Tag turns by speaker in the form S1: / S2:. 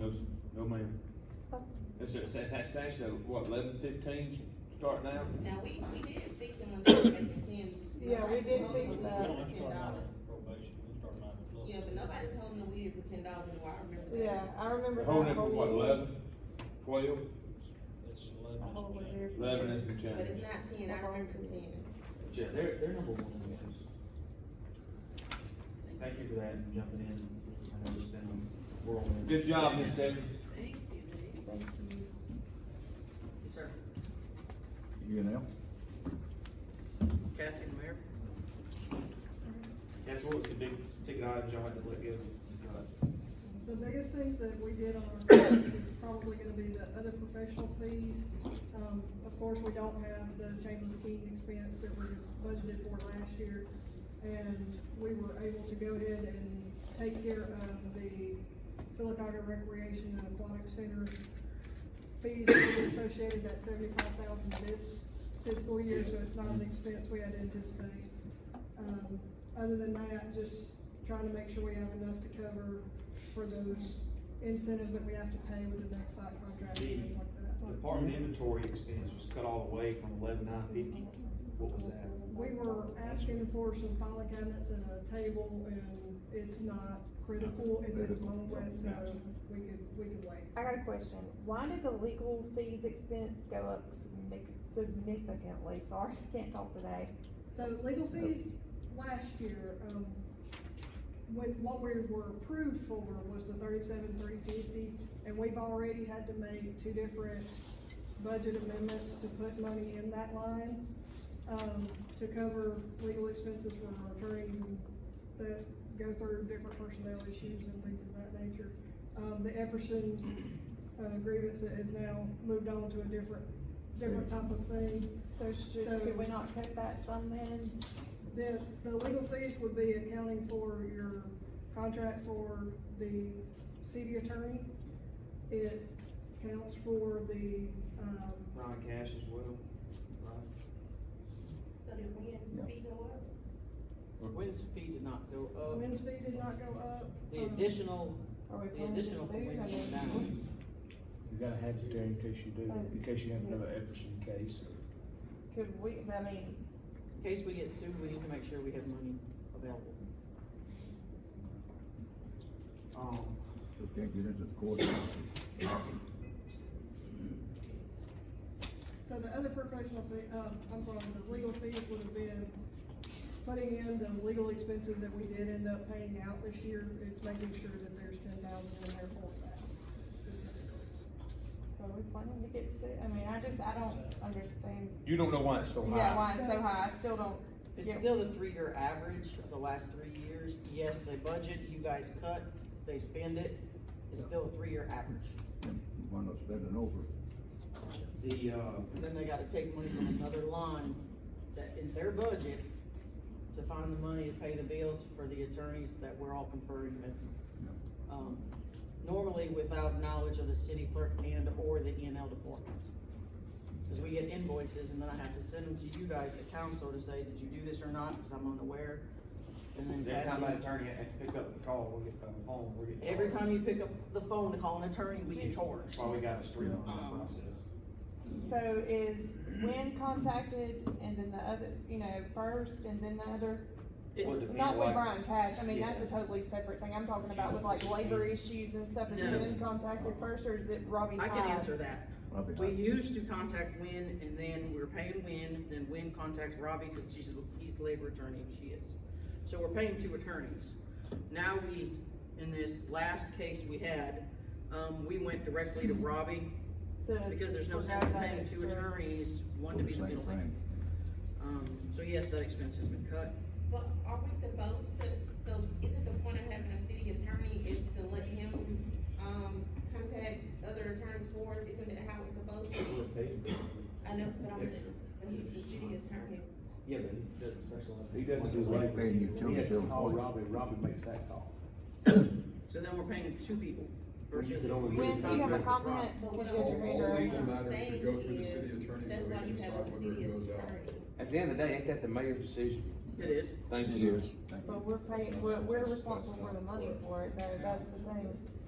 S1: No, ma'am. That's, that's, that's actually, what, eleven fifteen start now?
S2: Now, we, we did fix it when they were making ten.
S3: Yeah, we did
S2: nobody's
S3: fix
S2: holding
S3: that.
S2: the
S3: We
S2: weed for ten dollars.
S4: Probation, we start nine o'clock.
S2: Yeah, but nobody's holding the weed for ten dollars anymore, I remember that.
S3: Yeah, I remember
S1: We're
S3: that whole
S1: Holding it for
S3: year.
S1: what, eleven, twelve,
S4: It's
S3: That whole
S4: eleven.
S3: year.
S1: eleven and some
S2: But it's
S1: change?
S2: not ten, I remember ten.
S5: Yeah, they're, they're number one in the business. Thank you for that, and jumping in, I know this has been a whirlwind.
S1: Good job, Miss Stephanie.
S2: Thank you,
S3: Thank you.
S6: Sir,
S7: You know?
S6: Cassie and Mayor,
S5: That's what was the big ticket item y'all had to let go, uh,
S8: The biggest things that we did on our budget is probably gonna be the other professional fees. Um, of course, we don't have the Chamberlain's Key expense that we budgeted for last year. And we were able to go ahead and take care of the Silicaca Recreation and Aquatic Center fees that we associated that seventy-five thousand this fiscal year, so it's not an expense we had anticipated. Um, other than that, just trying to make sure we have enough to cover for those incentives that we have to pay with the next site contract and things like that.
S5: department inventory expense was cut all the way from eleven nine fifty, what was that?
S8: We were asking for some filing cabinets and a table, and it's not critical in this moment, so we could, we could wait.
S3: I got a question. Why did the legal fees expense go up signific- significantly? Sorry, I can't talk today.
S8: So legal fees last year, um, when, what we were approved for was the thirty-seven, three fifty, and we've already had to make two different budget amendments to put money in that line, um, to cover legal expenses for our attorneys and that go through different personnel issues and things of that nature. Um, the Epperson, uh, grievance has now moved on to a different, different type of thing.
S3: So should,
S8: So-
S3: could we not cut that some then?
S8: The, the legal fees would be accounting for your contract for the city attorney. It counts for the, um,
S5: Ron Cash as well, right?
S2: So did we,
S7: Yeah.
S2: fees and what?
S6: Wynn's fee did not go up,
S8: men's fee did not go up.
S6: Uh, the
S8: um,
S6: additional,
S3: Are we
S6: The
S3: planning to
S6: additional for
S3: sue?
S6: Wayne
S3: I mean,
S6: County.
S9: You gotta have it there in case you do, in case you have another Epperson case or.
S3: Could we, I mean,
S6: in case we get sued, we need to make sure we have money available.
S5: Um,
S7: They can't get into the court.
S8: So the other professional fee, uh, I'm sorry, the legal fees would have been putting in the legal expenses that we did end up paying out this year. It's making sure that there's ten thousand in there for that specifically.
S3: so are we planning to get sued? I mean, I just, I don't understand.
S1: You don't know why it's so high.
S3: Yeah, why it's so high. I still don't.
S6: It's
S3: Yeah.
S6: still the three-year average of the last three years, yes, they budget, you guys cut, they spend it, it's still a three-year average.
S7: You wind up spending over.
S5: the, uh,
S6: And then they gotta take money from another line that is their budget to find the money to pay the bills for the attorneys that we're all conferring with. Um, normally without knowledge of the city clerk and or the E and L department. Cause we get invoices and then I have to send them to you guys, the council, to say, did you do this or not, cause I'm unaware. And then
S5: every time that
S6: Cassie,
S5: attorney had picked up the call, we get the phone, we get.
S6: every time
S5: charged.
S6: you pick up the phone to call an attorney, we get charged.
S5: That's why we got a
S6: Um,
S5: streamlined process.
S3: So is when contacted and then the other, you know, first and then the other
S6: It-
S5: Well, it depends,
S3: Not with
S5: like-
S3: Brian Cash, I mean, that's a
S5: Yeah.
S3: totally separate thing, I'm talking about with like labor issues and stuff, is
S6: No.
S3: Ben contacted first, or is it Robbie
S6: I
S3: Todd?
S6: can answer that.
S7: Probably
S6: We
S7: not.
S6: used to contact Wynn, and then we were paying Wynn, then Wynn contacts Robbie, cause she's, he's the labor attorney, and she is. So we're paying two attorneys. Now we, in this last case we had, um, we went directly to Robbie,
S3: To-
S6: because there's no
S3: to
S6: sense
S3: have
S6: in
S3: that
S6: paying two
S3: extra-
S6: attorneys, one
S7: For
S6: to
S7: the
S6: be the
S7: same
S6: middleman.
S7: thing.
S6: Um, so yes, that expense has been cut.
S2: But are we supposed to, so isn't the point of having a city attorney is to let him, um, contact other attorneys for us, isn't that how it's supposed to be? I know, but I'm saying, but he's the city attorney,
S5: Yeah, but he doesn't specialize. in-
S1: He doesn't do
S7: We're
S1: labor.
S7: paying utility
S1: Yeah,
S7: bill
S1: Call
S7: twice.
S1: Robbie, Robbie makes that call.
S6: So then we're paying two people.
S1: We
S6: versus
S1: could only
S6: we
S1: do
S6: just
S3: When you have a
S6: contract with Robbie.
S3: comment,
S2: but
S3: because
S2: what
S3: you have to
S2: I'm,
S3: read
S2: what
S10: All
S3: her.
S10: legal
S2: I'm
S10: matters
S2: saying
S10: go through the city
S2: is,
S10: attorney
S2: that's
S10: where
S2: why
S10: they
S2: you have a
S10: decide whether it
S2: city
S10: goes out.
S2: attorney.
S9: At the end of the day, ain't that the mayor's decision?
S6: It is.
S1: Thank
S7: It
S1: you.
S7: is. Thank you.
S3: But we're paying, we're, we're responsible for the money for it, though, that's the thing.